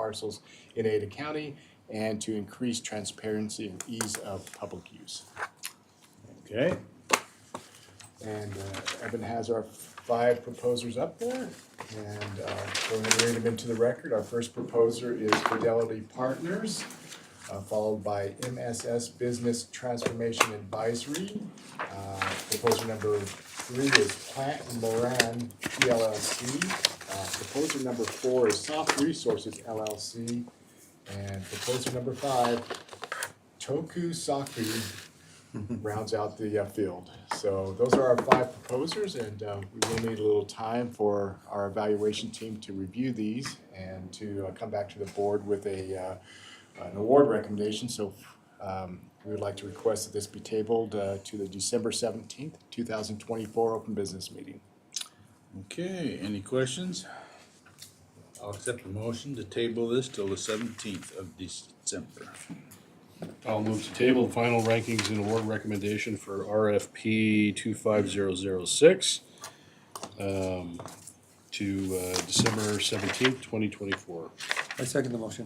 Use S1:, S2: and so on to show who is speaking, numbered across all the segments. S1: parcels in Ada County and to increase transparency and ease of public use.
S2: Okay,
S1: And uh, Evan has our five proposers up there. And uh, go ahead and read them into the record. Our first proposer is Fidelity Partners, uh, followed by MSS Business Transformation Advisory. Uh, Proposer number three is Plant and Moran PLLC. Uh, Proposer number four is Soft Resources LLC. And proposer number five, Toku Saku rounds out the uh, field. So those are our five proposers, and uh, we will need a little time for our evaluation team to review these and to uh, come back to the board with a, uh, an award recommendation. So um, we would like to request that this be tabled uh, to the December seventeenth, two thousand twenty-four open business meeting.
S2: okay, any questions? I'll accept a motion to table this till the seventeenth of December.
S3: I'll move to table the final rankings and award recommendation for RFP two five zero zero six um, to uh, December seventeenth, twenty twenty-four.
S4: I second the motion.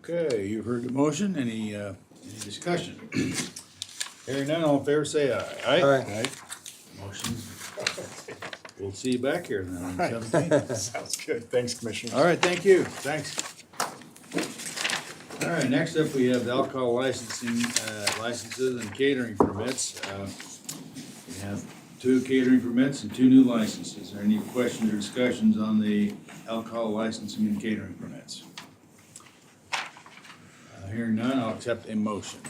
S2: Okay, you've heard the motion, any, uh, any discussion? Hearing none, all in favor, say aye.
S4: Aye.
S2: Motion. We'll see you back here then on the seventeenth.
S1: Sounds good. Thanks, Commissioner.
S2: All right, thank you, thanks. All right, next up, we have the alcohol licensing, uh, licenses and catering permits. Uh, We have two catering permits and two new licenses. Are there any questions or discussions on the alcohol licensing and catering permits? Uh, Hearing none, I'll accept a motion.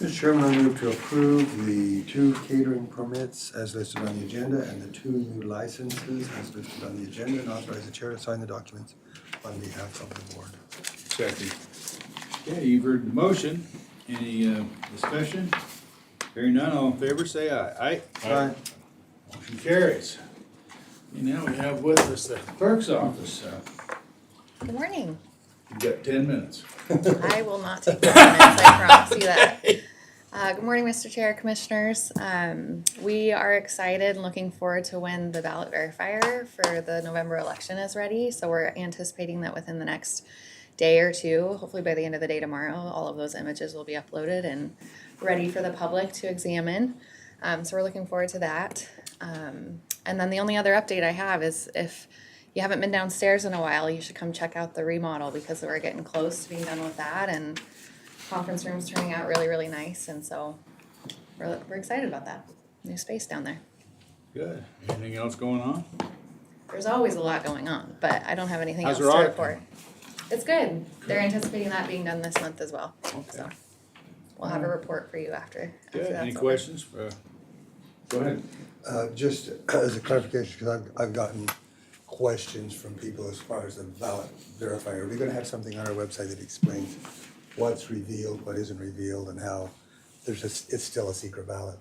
S5: Mr. Chairman, I move to approve the two catering permits as listed on the agenda and the two new licenses as listed on the agenda and authorize the chair to sign the documents on behalf of the board.
S2: Second. Okay, you've heard the motion. Any, uh, discussion? Hearing none, all in favor, say aye. Aye?
S5: Aye.
S2: Motion carries. And now we have with us the clerk's office. Uh,
S6: Good morning.
S2: You've got ten minutes.
S6: I will not take the comments, I promise you that. Uh, good morning, Mr. Chair, Commissioners. Um, we are excited and looking forward to when the ballot verifier for the November election is ready. So we're anticipating that within the next day or two, hopefully by the end of the day tomorrow, all of those images will be uploaded and ready for the public to examine. Um, so we're looking forward to that. Um, and then the only other update I have is if you haven't been downstairs in a while, you should come check out the remodel because we're getting close to being done with that and conference room's turning out really, really nice, and so we're, we're excited about that new space down there.
S2: Good. Anything else going on?
S6: There's always a lot going on, but I don't have anything
S2: How's
S6: else
S2: your
S6: to
S2: audit
S6: report. It's good. They're anticipating that being done this month as well, so we'll have a report for you after. after
S2: Good.
S6: that's
S2: Any
S6: over.
S2: questions? for- uh, Go ahead.
S5: Uh, just as a clarification, because I've, I've gotten questions from people as far as the ballot verifier. Are we gonna have something on our website that explains what's revealed, what isn't revealed, and how there's a, s- it's still a secret ballot?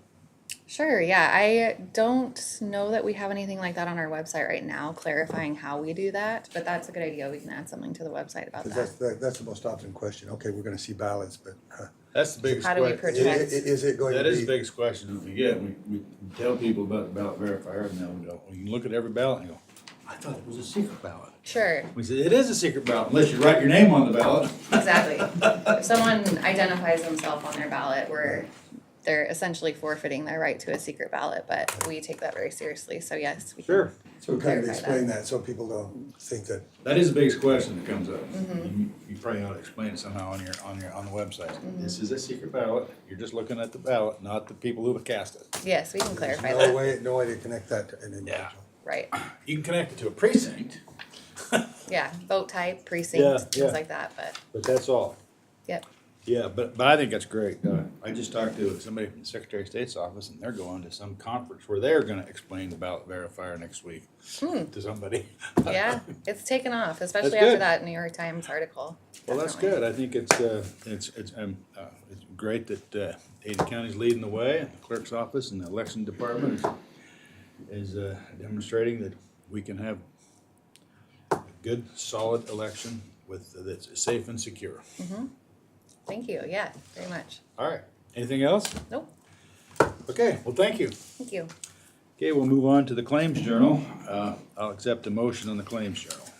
S6: Sure, yeah, I don't know that we have anything like that on our website right now, clarifying how we do that, but that's a good idea. We can add something to the website about
S5: Because
S6: that.
S5: that's, the- that's the most often question. Okay, we're gonna see ballots, but, huh.
S2: That's the biggest.
S6: How do we
S2: que-
S5: I- i-
S6: protect-
S5: Is it going to
S2: That
S5: be?
S2: is the biggest question that we get. We, we tell people about the ballot verifier and they'll go, well, you can look at every ballot and go, I thought it was a secret ballot.
S6: Sure.
S2: We said, it is a secret ballot unless you write your name on the ballot.
S6: Exactly. If someone identifies themselves on their ballot, we're, they're essentially forfeiting their right to a secret ballot, but we take that very seriously, so yes, we can.
S5: So kind of
S6: Clarify
S5: explain that, so people don't think that,
S2: That is the biggest question that comes up. You you probably ought to explain it somehow on your, on your, on the website. This is a secret ballot. You're just looking at the ballot, not the people who have cast it.
S6: Yes, we can
S5: there's
S6: clarify
S5: no
S6: that,
S5: way, no way to connect that to an individual.
S6: right.
S2: You can connect it to a precinct,
S6: Yeah, vote type,
S2: Yeah,
S6: precinct,
S2: yeah.
S6: things like that, but,
S2: but that's all.
S6: yep.
S2: Yeah, but, but I think that's great. Uh, I just talked to somebody from the Secretary of State's office and they're going to some conference where they're gonna explain the ballot verifier next week to somebody.
S6: Yeah, it's taken off, especially
S2: That's
S6: after
S2: good.
S6: that New York Times article.
S2: Well, that's
S6: Definitely.
S2: good. I think it's, uh, it's, it's, um, uh, it's great that, uh, Ada County's leading the way, and the clerk's office and the election department is, uh, demonstrating that we can have a good, solid election with, that's safe and secure.
S6: Thank you, yeah, very much.
S2: All right. Anything else?
S6: Nope,
S2: Okay, well, thank you.
S6: thank you.
S2: Okay, we'll move on to the Claims Journal. Uh, I'll accept a motion on the Claims Journal.